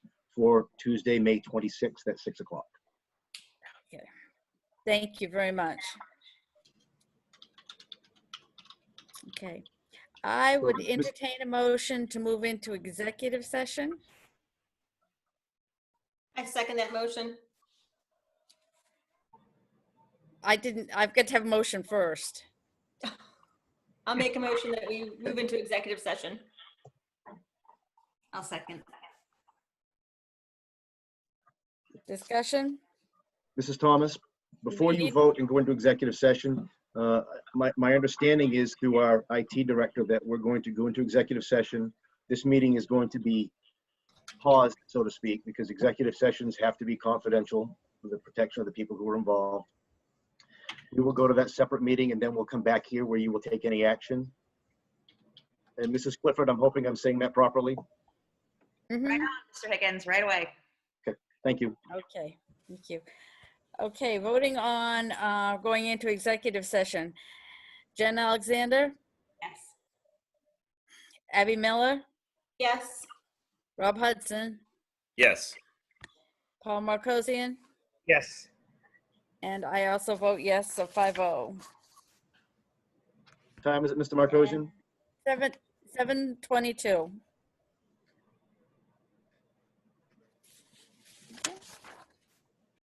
for Tuesday, May 26th at 6 o'clock. Thank you very much. Okay, I would Mis- entertain a motion to move into executive session. I second that motion. I didn't, I've got to have a motion first. I'll make a motion that we move into executive session. I'll second. Discussion? Mrs. Thomas, before you Indeed. vote and go into executive session, uh, my, my understanding is through our IT director that we're going to go into executive session. This meeting is going to be paused, so to speak, because executive sessions have to be confidential for the protection of the people who are involved. We will go to that separate meeting and then we'll come back here where you will take any action. And Mrs. Clifford, I'm hoping I'm saying that properly. Mhm. Right on, Mr. Higgins, right away. Thank you. Okay, thank you. Okay, voting on uh, going into executive session. Jen Alexander, Yes. Abby Miller, Yes. Rob Hudson, Yes. Paul Marcosian, Yes. and I also vote yes, so oh. 5-0. Time is it, Mr. Markosian? Seven, 7:22.